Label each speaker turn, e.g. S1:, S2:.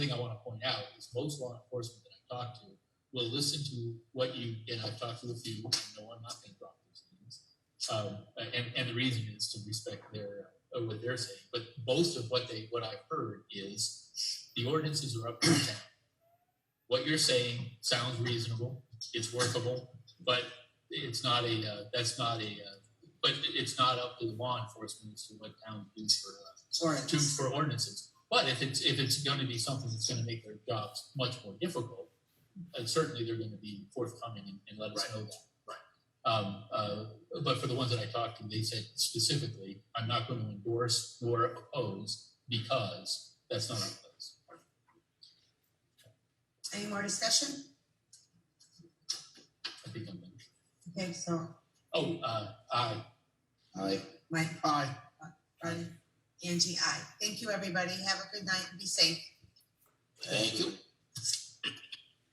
S1: thing I want to point out is most law enforcement that I've talked to will listen to what you, and I've talked to a few, and no, I'm not going to drop these names. Um, and, and the reason is to respect their, uh, what they're saying, but most of what they, what I've heard is the ordinances are up to the town. What you're saying sounds reasonable, it's workable, but it's not a, uh, that's not a, uh, but it's not up to the law enforcement as to what town does for, uh, to,
S2: Ordinance.
S1: for ordinances. But if it's, if it's gonna be something that's gonna make their jobs much more difficult, uh, certainly they're gonna be forthcoming and, and let us know that.
S3: Right.
S1: Um, uh, but for the ones that I talked to, they said specifically, I'm not gonna endorse or oppose because that's not our place.
S2: Any more discussion?
S1: I think I'm, gonna-
S2: Okay, so
S1: oh, uh, I,
S3: Aye.
S2: Mike,
S3: Aye.
S2: Rodney, Angie, I. Thank you, everybody. Have a good night and be safe.